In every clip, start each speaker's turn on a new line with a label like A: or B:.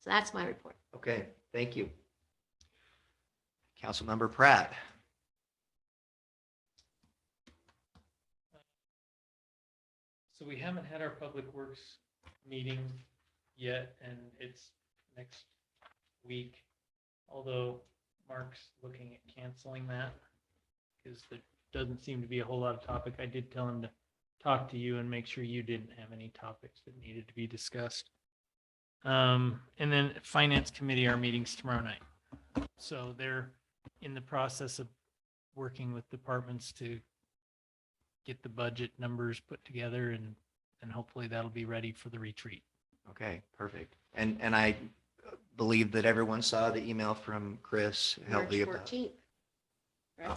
A: So that's my report.
B: Okay, thank you. Councilmember Pratt.
C: So we haven't had our public works meeting yet, and it's next week. Although Mark's looking at canceling that because there doesn't seem to be a whole lot of topic. I did tell him to talk to you and make sure you didn't have any topics that needed to be discussed. Um, and then Finance Committee, our meeting's tomorrow night. So they're in the process of working with departments to get the budget numbers put together and, and hopefully that'll be ready for the retreat.
B: Okay, perfect. And, and I believe that everyone saw the email from Chris
A: March
B: Helvey about.
A: 14th. Right?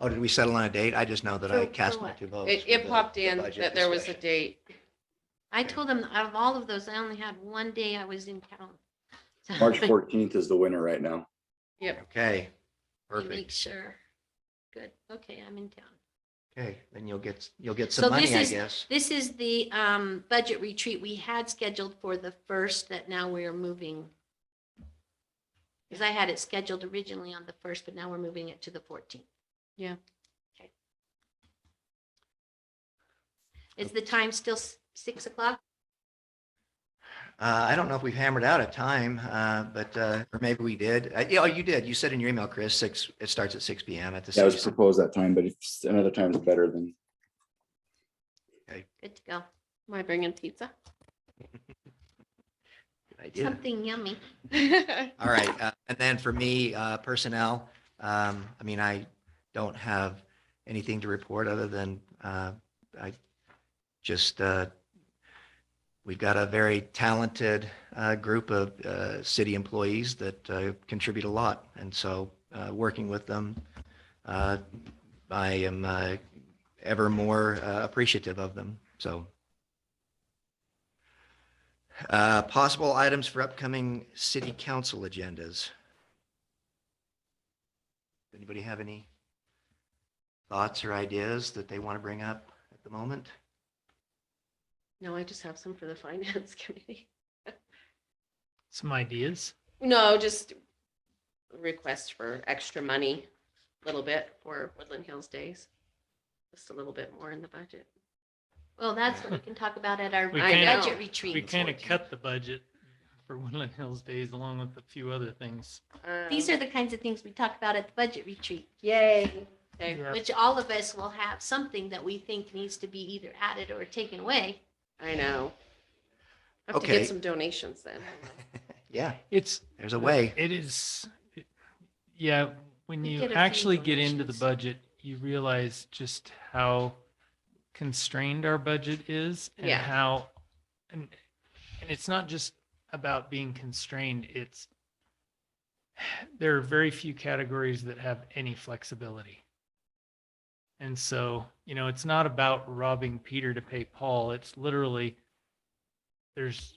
B: Oh, did we settle on a date? I just know that
A: For-
B: I
A: for
B: cast my
A: what?
B: two votes.
D: It,
B: for
D: it
B: the-
D: popped
B: the
D: in
B: budget
D: that there was a
B: discussion.
D: date.
A: I told them out of all of those, I only had one day I was in town. So
E: March
A: I
E: fourteenth is the winner right now.
D: Yep.
B: Okay,
A: Make
B: perfect.
A: sure. Good. Okay, I'm in town.
B: Okay, then you'll get, you'll get
A: So
B: some money,
A: this
B: I
A: is-
B: guess.
A: This is the um, budget retreat we had scheduled for the first that now we are moving. Because I had it scheduled originally on the first, but now we're moving it to the 14th.
D: Yeah.
A: Okay. Is the time still s- six o'clock?
B: Uh, I don't know if we've hammered out a time, uh, but, uh, or maybe we did. Uh, yeah, oh, you did. You said in your email, Chris, six, it starts at six PM at the.
E: That was
B: city center.
E: proposed that time, but if another time is better than
A: Good to go.
D: Am I bringing pizza?
B: Good idea.
A: Something yummy.
D: That's
B: All right, uh, and then for me, uh, personnel, um, I mean, I don't have anything to report other than, uh, I just, uh, we've got a very talented, uh, group of, uh, city employees that, uh, contribute a lot. And so, uh, working with them, uh, I am, uh, ever more uh, appreciative of them, so. Uh, Possible items for upcoming city council agendas. Anybody have any thoughts or ideas that they want to bring up at the moment?
D: No, I just have some for the finance committee.
C: Some ideas?
D: No, just request for extra money, a little bit for Woodland Hills Days. Just a little bit more in the budget.
A: Well, that's what we can talk about at our
C: We
A: our
C: kinda-
A: budget
C: We
A: retreat.
C: kind of cut the budget for Woodland Hills Days along with a few other things.
A: These
D: Um,
A: are the kinds of things we talk about at the budget retreat.
D: Yay. Okay,
C: Yeah.
A: which all of us will have something that we think needs to be either added or taken away.
D: I know. I Have to get
B: Okay.
D: some donations then.
B: Yeah,
C: It's,
B: there's a way.
C: It is, it- yeah, when
A: We
C: you
A: get a few
C: actually get into the
A: donations.
C: budget, you realize just how constrained our budget is and
D: Yeah.
C: how, and, and it's not just about being constrained, it's, there are very few categories that have any flexibility. And so, you know, it's not about robbing Peter to pay Paul. It's literally, there's,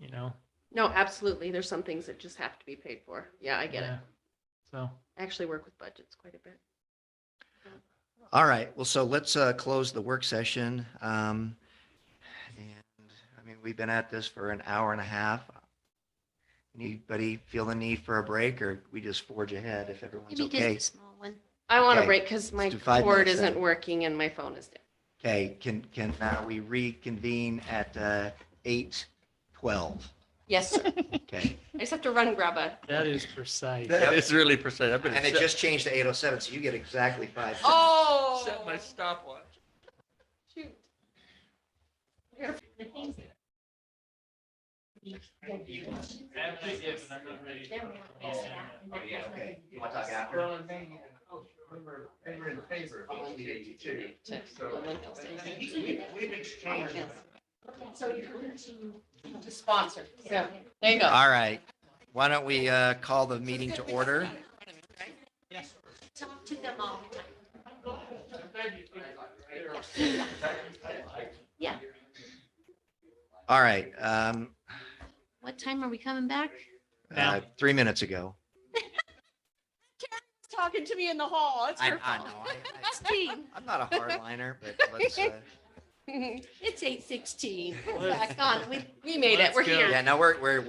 C: you know,
D: No, absolutely. There's some things that just have to be paid for. Yeah, I get it.
C: yeah. So.
D: I actually work with budgets quite a bit.
B: All right, well, so let's uh, close the work session. Um, And, I mean, we've been at this for an hour and a half. Anybody feel the need for a break, or we just forge ahead if everyone's
A: Maybe just
B: okay?
A: a small one.
D: I want
B: Okay.
D: to break because my
B: do five
D: cord
B: minutes then.
D: isn't working and my phone is dead.
B: Okay, can, can uh, we reconvene at uh, 8:12?
D: Yes, sir. I
B: Okay.
D: just have to run and grab a.
C: That is precise.
B: That-
F: That is really precise. I've been
B: And it just changed to 8:07, so you get exactly five.
D: Oh,
F: set my stopwatch.
D: shoot.
B: Okay, you want to talk after?
D: To sponsor. Yeah, there you go.
B: All right, why don't we uh, call the meeting to order?
A: Talk to them all the time. Yeah,
B: All right, um,
A: what time are we coming back?
B: uh, three minutes ago.
D: Talking to me in the hall. It's
B: I-
D: her
B: I
D: fault.
B: know, I- I-
A: Sixteen,
B: I'm not a hardliner, but let's, uh,
A: it's eight sixteen. Back on, we
D: We made it.
C: Let's
D: We're
C: go.
D: here.
B: yeah, no, we're, we're,